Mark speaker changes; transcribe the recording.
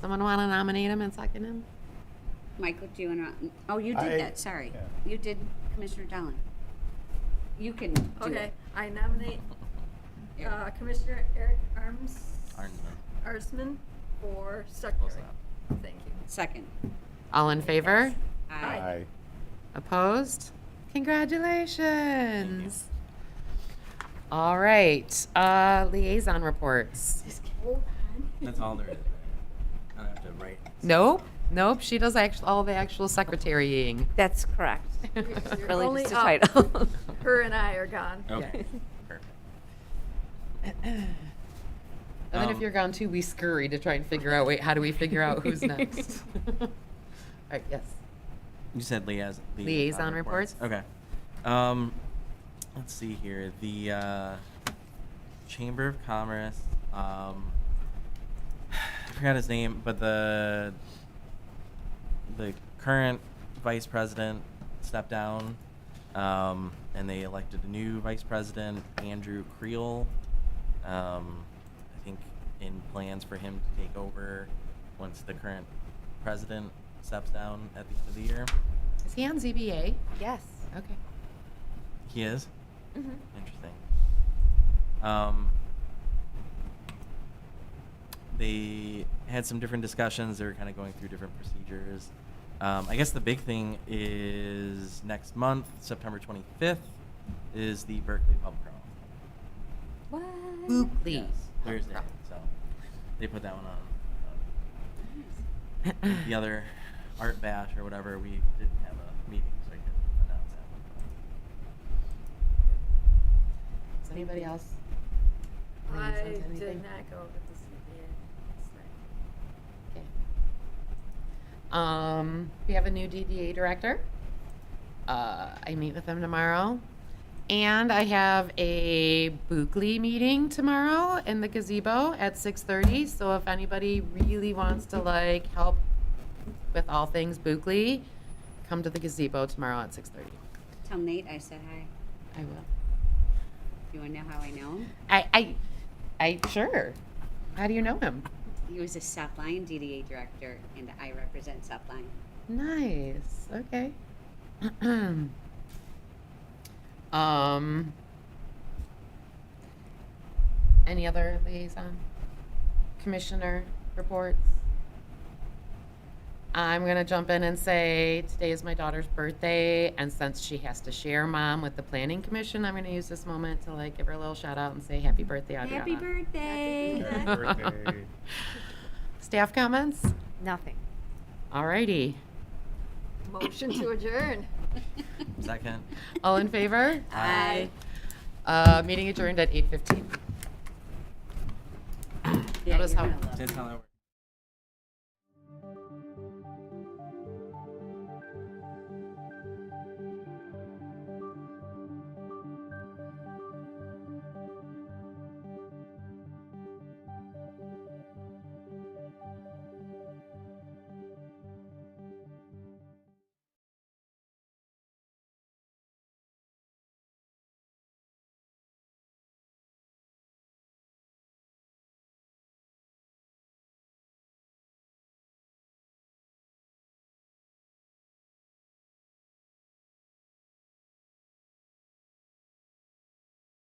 Speaker 1: Someone want to nominate him and second him?
Speaker 2: Michael, do you want to, oh, you
Speaker 3: I-
Speaker 2: did that, sorry.
Speaker 3: yeah.
Speaker 2: You did Commissioner Dolan. You can do it.
Speaker 4: Okay, I nominate uh, Commissioner Eric Arms. Arsman for secretary. Thank you.
Speaker 2: Second.
Speaker 1: All in favor?
Speaker 2: Aye.
Speaker 3: Aye.
Speaker 1: Opposed? Congratulations. All right, uh, liaison reports.
Speaker 4: Hold on.
Speaker 5: That's all there is. I don't have to write.
Speaker 1: Nope, nope, she does act, all the actual secretarying.
Speaker 6: That's correct.
Speaker 4: You're
Speaker 6: Really
Speaker 4: only
Speaker 6: just a
Speaker 4: up.
Speaker 6: title.
Speaker 4: Her and I are gone.
Speaker 5: Okay. Perfect.
Speaker 1: And then if
Speaker 5: Um,
Speaker 1: you're gone too, we scurry to try and figure out, wait, how do we figure out who's next? All right, yes.
Speaker 5: You said liaison.
Speaker 1: Liaison
Speaker 5: Okay. Um, let's see here. The uh, Chamber of Commerce. Um, I forgot his name, but the the current vice president stepped down, um, and they elected a new vice president, Andrew Creel. Um, I think in plans for him to take over once the current president steps down at the end of the year.
Speaker 1: Is he on ZBA?
Speaker 6: Yes.
Speaker 1: Okay.
Speaker 5: He is.
Speaker 6: Mhm.
Speaker 5: Interesting. Um, they had some different discussions. They were kind of going through different procedures. Um, I guess the big thing is next month, September 25th, is the Berkeley Pub Crawl.
Speaker 6: What?
Speaker 1: Booply.
Speaker 5: Yes, Thursday. So they put that one on. Um, the other art bash or whatever, we didn't have a meeting, so I couldn't announce that one.
Speaker 1: Does anybody else?
Speaker 4: I
Speaker 1: liaison to
Speaker 4: did
Speaker 1: anything?
Speaker 4: not go to the CBA.
Speaker 1: Okay. Um, we have a new DDA director. Uh, I meet with them tomorrow. And I have a Bookly meeting tomorrow in the gazebo at 6:30. So if anybody really wants to like help with all things Bookly, come to the gazebo tomorrow at 6:30.
Speaker 2: Tell Nate I said hi.
Speaker 1: I will.
Speaker 2: You want to know how I know him?
Speaker 1: I, I, I sure. How do you know him?
Speaker 2: He was a South Lyon DDA director, and I represent South Lyon.
Speaker 1: Nice. Okay. um. Any other liaison, commissioner reports? I'm gonna jump in and say today is my daughter's birthday, and since she has to share mom with the planning commission, I'm gonna use this moment to like give her a little shout out and say happy birthday, Adriana.
Speaker 2: Happy birthday!
Speaker 3: Happy birthday.
Speaker 1: Staff comments?
Speaker 6: Nothing.
Speaker 1: Alrighty.
Speaker 4: Motion to adjourn.
Speaker 5: Second.
Speaker 1: All in favor?
Speaker 2: Aye.
Speaker 1: Uh, meeting adjourned at eight fifteen.
Speaker 2: Yeah,
Speaker 1: Notice
Speaker 2: you're
Speaker 1: how-
Speaker 2: gonna love
Speaker 5: That's how that works.